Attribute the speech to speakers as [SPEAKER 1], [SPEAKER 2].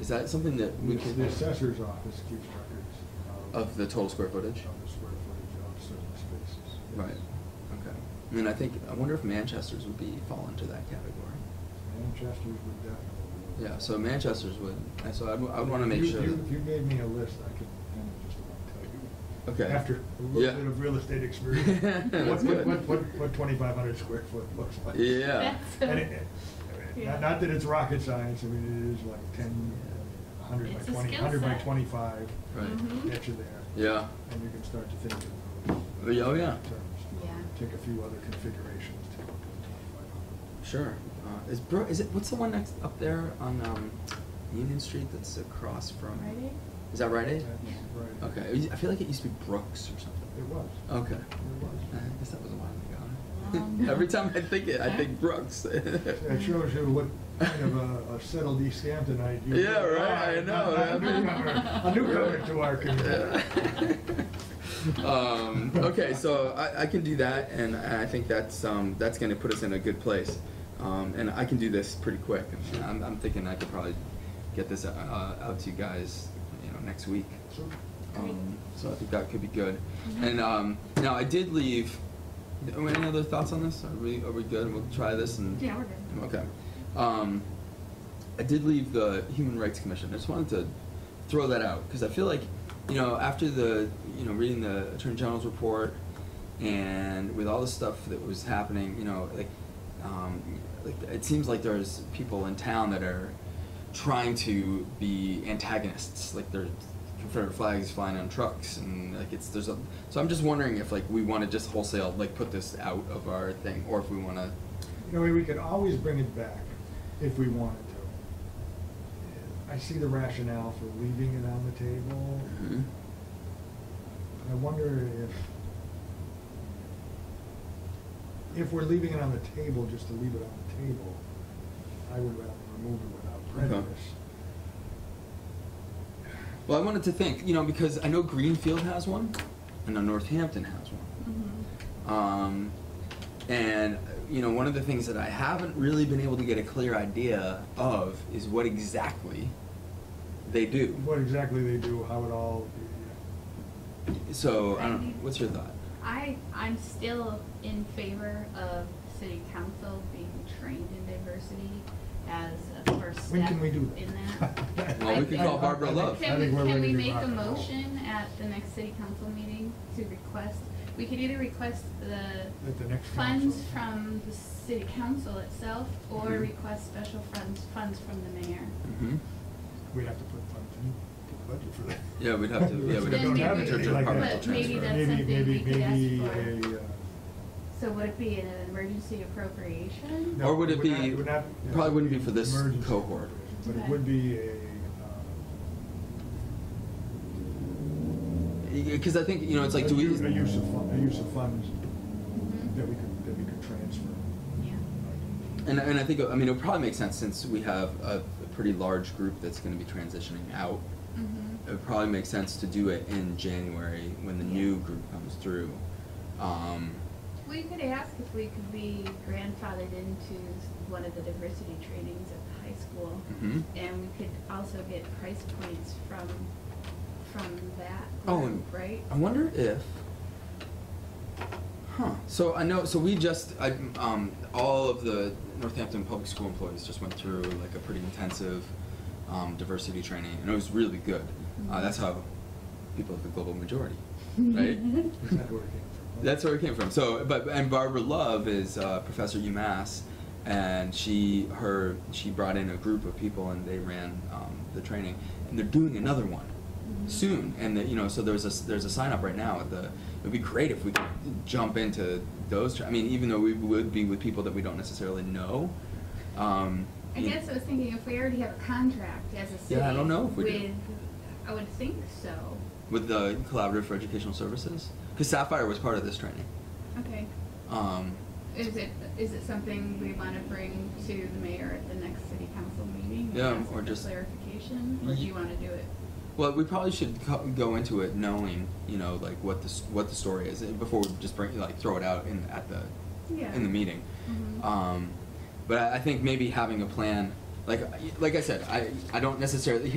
[SPEAKER 1] Is that something that we
[SPEAKER 2] The
[SPEAKER 1] can,
[SPEAKER 2] assessor's office keeps records of.
[SPEAKER 1] of the total square footage?
[SPEAKER 2] Of the square footage of certain spaces. yes.
[SPEAKER 1] Right, okay. And then I think, I wonder if Manchester's would be, fall into that category.
[SPEAKER 2] Manchester's would definitely.
[SPEAKER 1] Yeah, so Manchester's would, and so I'd, I would wanna make
[SPEAKER 2] You-
[SPEAKER 1] sure.
[SPEAKER 2] You,
[SPEAKER 1] that-
[SPEAKER 2] you gave me a list, I could, kind of just about tell you.
[SPEAKER 1] Okay.
[SPEAKER 2] After a
[SPEAKER 1] Yeah.
[SPEAKER 2] little bit of real estate experience.
[SPEAKER 1] That's
[SPEAKER 2] What,
[SPEAKER 1] good.
[SPEAKER 2] what, what, what, what twenty-five hundred square foot looks like.
[SPEAKER 1] Yeah.
[SPEAKER 3] That's-
[SPEAKER 2] And it, it-
[SPEAKER 3] Yeah.
[SPEAKER 2] not, not that it's rocket science, I mean, it is like ten, a hundred by
[SPEAKER 3] It's a
[SPEAKER 2] twenty,
[SPEAKER 3] skill
[SPEAKER 2] hundred by
[SPEAKER 3] set.
[SPEAKER 2] twenty-five.
[SPEAKER 1] Right.
[SPEAKER 3] Mhm.
[SPEAKER 2] Get you there.
[SPEAKER 1] Yeah,
[SPEAKER 2] And you can start to think of
[SPEAKER 1] Oh,
[SPEAKER 2] those.
[SPEAKER 1] yeah, oh, yeah.
[SPEAKER 2] terms.
[SPEAKER 3] Yeah.
[SPEAKER 2] Take a few other configurations to go to
[SPEAKER 1] sure. Uh, is Bro, is it, what's the one next, up there on, um, Union Street that's across from?
[SPEAKER 3] Rite Aid?
[SPEAKER 1] Is that Rite Aid?
[SPEAKER 2] twenty-five hundred. Right.
[SPEAKER 1] Okay, it used- I feel like it used to be Brooks or something.
[SPEAKER 2] It was.
[SPEAKER 1] Okay.
[SPEAKER 2] It
[SPEAKER 1] I
[SPEAKER 2] was.
[SPEAKER 1] guess that was a while ago.
[SPEAKER 3] Um,
[SPEAKER 1] Every time I think it, I
[SPEAKER 3] yeah.
[SPEAKER 1] think Brooks.
[SPEAKER 2] That shows you what kind of a a settled East Hamptonite you
[SPEAKER 1] Yeah,
[SPEAKER 2] really
[SPEAKER 1] right, I
[SPEAKER 2] are.
[SPEAKER 1] know,
[SPEAKER 2] Not- not
[SPEAKER 1] I mean-
[SPEAKER 2] A newcomer, a newcomer to our community.
[SPEAKER 1] Yeah. um, okay, so I, I can do that, and I think that's um, that's going to put us in a good place. Um, and I can do this pretty quick. I mean, I'm, I'm thinking I could probably get this uh, out to you guys, you know, next week.
[SPEAKER 2] So,
[SPEAKER 1] Um, so I think that could be good.
[SPEAKER 3] Mhm.
[SPEAKER 1] And um, now I did leave. Are we- any other thoughts on this? Are we are we good? We'll try this and
[SPEAKER 3] Yeah, we're good.
[SPEAKER 1] Okay. Um, I did leave the Human Rights Commission. I just wanted to throw that out because I feel like, you know, after the, you know, reading the Attorney General's report and with all the stuff that was happening, you know, like, um, like it seems like there's people in town that are trying to be antagonists. Like there's Confederate flags flying on trucks and like it's there's a. So I'm just wondering if like we want to just wholesale like put this out of our thing or if we want to.
[SPEAKER 2] You know, we could always bring it back if we wanted to. I see the rationale for leaving it on the table.
[SPEAKER 1] Mm-hmm.
[SPEAKER 2] I wonder if, if we're leaving it on the table, just to leave it on the table, I would rather remove it without
[SPEAKER 1] Okay.
[SPEAKER 2] prejudice.
[SPEAKER 1] Well, I wanted to think, you know, because I know Greenfield has one, and I know Northampton has one.
[SPEAKER 3] Mhm.
[SPEAKER 1] Um, and, uh, you know, one of the things that I haven't really been able to get a clear idea of is what exactly they do.
[SPEAKER 2] What exactly they do, how it all,
[SPEAKER 1] So, I don't know, what's your thought?
[SPEAKER 3] I, I'm still in favor of city council being trained in diversity as a first step
[SPEAKER 2] when
[SPEAKER 3] in that.
[SPEAKER 2] can we do that?
[SPEAKER 1] Well, we
[SPEAKER 3] could
[SPEAKER 2] I-
[SPEAKER 3] call
[SPEAKER 2] I-
[SPEAKER 1] Barbara
[SPEAKER 2] I think-
[SPEAKER 1] Love.
[SPEAKER 2] I
[SPEAKER 3] Can we,
[SPEAKER 2] think we're
[SPEAKER 3] can
[SPEAKER 2] ready
[SPEAKER 3] we
[SPEAKER 2] to
[SPEAKER 3] make
[SPEAKER 2] rock
[SPEAKER 3] a
[SPEAKER 2] and roll.
[SPEAKER 3] motion at the next city council meeting to request, we could either request the
[SPEAKER 2] At the next council. Mm-hmm.
[SPEAKER 3] funds from the city council itself, or
[SPEAKER 1] Mhm.
[SPEAKER 3] request special funds, funds from the mayor.
[SPEAKER 1] Mm-hmm.
[SPEAKER 2] We'd have to put funds in, the budget for that.
[SPEAKER 1] Yeah, we'd have to- yeah, we'd
[SPEAKER 2] We don't
[SPEAKER 3] have to
[SPEAKER 2] have
[SPEAKER 3] do
[SPEAKER 2] anything
[SPEAKER 3] it
[SPEAKER 2] like that.
[SPEAKER 3] But maybe that's something
[SPEAKER 2] Maybe,
[SPEAKER 3] we could ask
[SPEAKER 2] maybe,
[SPEAKER 3] for.
[SPEAKER 2] maybe a, uh.
[SPEAKER 3] So would it be an emergency appropriation?
[SPEAKER 2] no,
[SPEAKER 1] Or would it
[SPEAKER 2] not-
[SPEAKER 1] be-
[SPEAKER 2] would not-
[SPEAKER 1] it probably wouldn't be for this
[SPEAKER 2] emergency
[SPEAKER 1] cohort.
[SPEAKER 2] situation, But it
[SPEAKER 3] Okay.
[SPEAKER 2] would be a, um,
[SPEAKER 1] Because I think, you know, it's like,
[SPEAKER 2] a
[SPEAKER 1] do we?
[SPEAKER 2] u- A use of, fun- a use of funds
[SPEAKER 3] Mhm.
[SPEAKER 2] that we could, that we could transfer.
[SPEAKER 3] Yeah.
[SPEAKER 1] And, and I think, I mean, it would probably make sense since we have a, a pretty large group that's going to be transitioning out.
[SPEAKER 3] Mm-hmm.
[SPEAKER 1] It would probably make sense to do it in January when the new group comes through. Um,
[SPEAKER 3] We could ask if we could be grandfathered into one of the diversity trainings at the high school.
[SPEAKER 1] mhm.
[SPEAKER 3] And we could also get price points from, from that
[SPEAKER 1] Oh,
[SPEAKER 3] group,
[SPEAKER 1] and-
[SPEAKER 3] right?
[SPEAKER 1] I wonder if. Huh. So I know. So we just. I, um, all of the Northampton public school employees just went through like a pretty intensive um, diversity training, and it was really good. Uh, that's how people have the global majority, right?
[SPEAKER 2] Is that where it came from?
[SPEAKER 1] That's where it came from. So, but and Barbara Love is uh, professor at UMass, and she her she brought in a group of people and they ran um, the training, and they're doing another one
[SPEAKER 3] Mhm.
[SPEAKER 1] soon. And the, you know, so there's a there's a sign up right now at the. It would be great if we could jump into those. Tra- I mean, even though we would be with people that we don't necessarily know. Um,
[SPEAKER 3] I
[SPEAKER 1] you-
[SPEAKER 3] guess I was thinking if we already have a contract as a city.
[SPEAKER 1] Yeah, I don't know if we do.
[SPEAKER 3] With, I would think so.
[SPEAKER 1] with the collaborative for educational services, because Sapphire was part of this training.
[SPEAKER 3] Okay.
[SPEAKER 1] Um,
[SPEAKER 3] Is it, is it something we want to bring to the mayor at the next city council meeting? and
[SPEAKER 1] Yeah,
[SPEAKER 3] ask
[SPEAKER 1] or
[SPEAKER 3] for
[SPEAKER 1] just-
[SPEAKER 3] Clarification, or do you want to do it?
[SPEAKER 1] Well, we probably should co- go into it knowing, you know, like what the s- what the story is eh, before we just bring like throw it out in at the
[SPEAKER 3] Yeah.
[SPEAKER 1] in the meeting.
[SPEAKER 3] Mhm.
[SPEAKER 1] Um, but I, I think maybe having a plan, like like I said, I I don't necessarily.